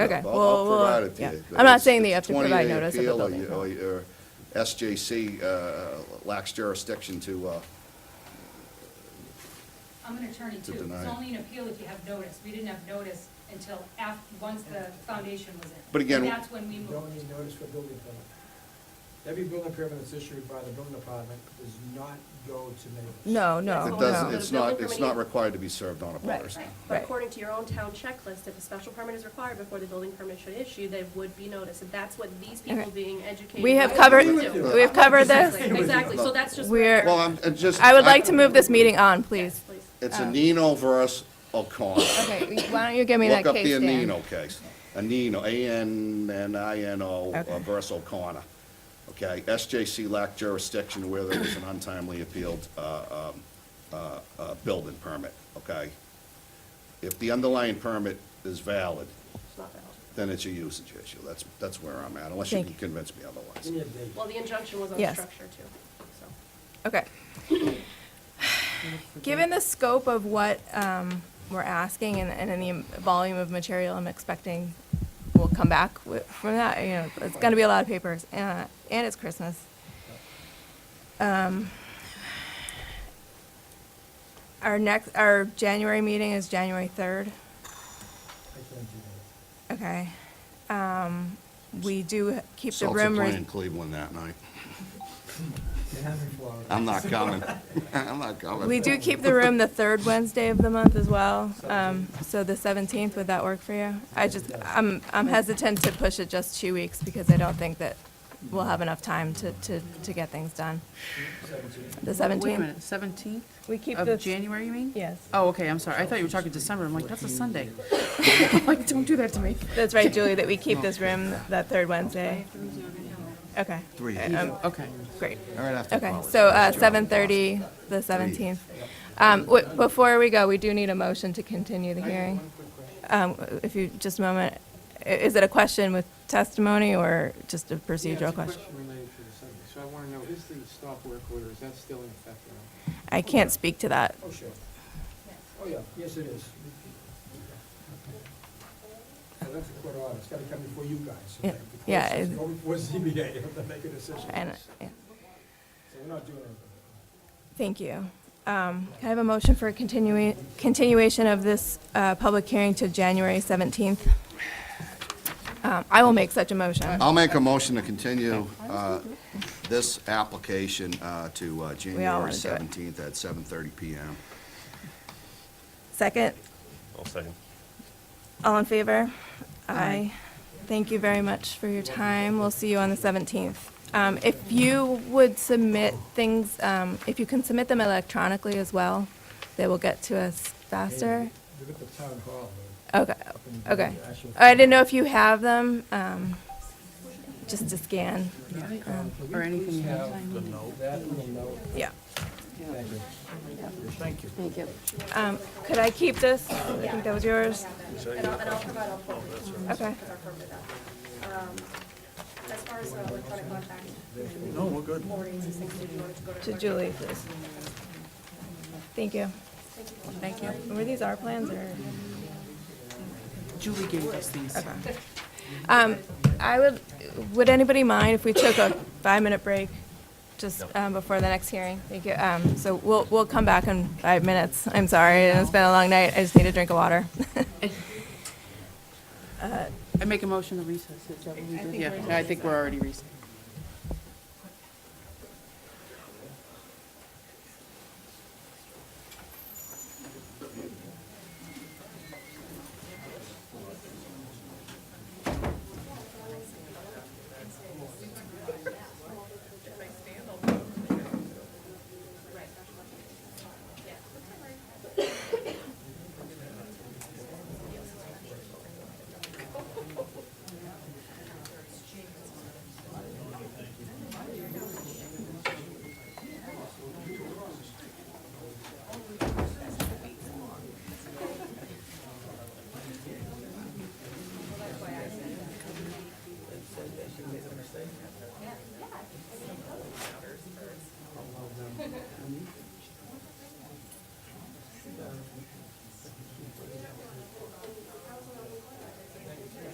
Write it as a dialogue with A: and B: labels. A: Okay,
B: I'll- I'll
A: well, well,
B: provide it to
A: yeah.
B: you.
A: I'm not
B: It's-
A: saying that
B: it's
A: you have to
B: 20-day
A: provide notice of the
B: appeal, or
A: building.
B: you- Or your SJC uh, lacks jurisdiction to, uh,
C: I'm an attorney
B: To
C: too. It's
B: deny.
C: only an appeal if you have notice. We didn't have notice until af, once the foundation was in.
B: But again-
C: And that's when we
D: You don't
C: moved.
D: need notice for building permit. Every building permit that's issued by the building department does not go to neighbors.
A: No, Oh, no,
B: it
A: no.
B: doesn't, it's not,
E: Building
B: it's not
E: permit.
B: required to be served on a
A: Right.
B: butters.
E: Right,
A: Right.
E: but according to your own town checklist, if a special permit is required before the building permit should issue, there would be notice, and that's what these people
A: Okay.
E: being educated.
A: We have
E: by
A: covered-
E: the board do.
A: we have covered this.
E: Exactly, Exactly, so that's just.
A: We're-
B: Well, I'm, it just.
A: I would like to move this meeting Uh. on,
E: Yes,
A: please.
E: please.
B: It's a Nino versus O'Connor.
A: Okay, why don't you give me that
B: Look up the
A: case, Dan?
B: Anino case. Anino, A-N-N-I-N-O uh,
A: Okay.
B: versus O'Connor. Okay, SJC lacked jurisdiction where there was an untimely appealed uh, um, uh, uh, building permit, okay? If the underlying permit is valid,
E: It's not valid.
B: then it's a usage issue. That's, that's where I'm at, unless you
A: Thank
B: can
A: you.
B: convince me
D: Give
B: otherwise.
D: me a date.
E: Well, the injunction was on
A: Yes.
E: structure too, so.
A: Okay. Given the scope of what um, we're asking and and any volume of material I'm expecting will come back wi- from that, you know, it's going to be a lot of papers, uh, and it's Christmas. Um, Our next, our January meeting is January 3rd.
D: I can't do
A: Okay. Um, we do keep the
B: Celtics
A: room. res-
B: playing Cleveland that night.
D: that. They have in Florida.
B: I'm not coming. I'm not coming.
A: We do keep the room the third Wednesday of the month as well. Um, so the seventeenth, would that work for you? I just, I'm, I'm hesitant to push it just two weeks because I don't think that we'll have enough time to, to, to get things done.
D: Seventeen.
A: The
F: Wait a
A: seventeenth?
F: minute, seventeenth
A: We keep the.
F: of January, you mean?
A: Yes,
F: Oh, okay, I'm sorry, I thought you were talking December, I'm like, that's a Sunday. I'm Like, don't do that to me.
A: that's right, Julie, that we keep this room that third Wednesday. Okay. Uh, um, Three.
F: Um, Okay.
A: Great.
G: Right after
A: Okay,
G: college.
A: so uh, 7:30, the 17th. Um, w- Before we go, we do need a motion to continue the hearing. Um, If you, just a moment, I- is it a question with testimony or just a procedural question?
H: related to the subject, so I want to know, is the stop work order, is that still in effect or not?
A: I can't speak to that.
D: Oh, sure. Oh, yeah, yes, it is. Well, that's a court order, it's gotta come before you guys.
A: Yeah,
D: okay? Before
A: yeah,
D: it's-
A: it-
D: Go before ZBA, you have to make a decision.
A: And, yeah.
D: So we're not doing anything.
A: Thank you. Um, Can I have a motion for a continua- continuation of this uh, public hearing to January 17th? Um, I will make such a motion.
B: I'll make a motion to continue uh, this application uh, to uh, January
A: wanna do it.
B: 17th at 7:30 PM.
A: Second?
I: I'll second.
A: All in favor? Aye. Thank you very much for your time. We'll see you on the 17th. Um, If you would submit things, um, if you can submit them electronically as well, they will get to us faster.
D: Look at the town hall. though.
A: Okay,
D: Can you
A: okay.
D: do the actual-
A: I didn't know if you have them, um, just to scan.
D: Um, can we
F: Or anything
D: please
F: you
D: have
F: have.
D: That little note,
A: Yeah.
D: thank you. Thank you.
A: Um, Could I keep this? I think that was yours.
E: And I'll, and I'll provide all four of these.
A: Okay.
E: As our corporate doc. Um, As far as uh, electronic contact.
H: No, we're good.
E: Warnings, these things, did you want to go to?
A: To Julie, please. Thank you. Thank you. Were these our plans or?
F: Julie gave us these.
A: Um, I would, would anybody mind if we took a five-minute break just um, before the next hearing? Thank you. Um, So we'll, we'll come back in five minutes. I'm sorry, it's been a long night. I just need a drink of water.
F: I make a motion to recess. Is that what we do? Yeah, I think we're already recessed.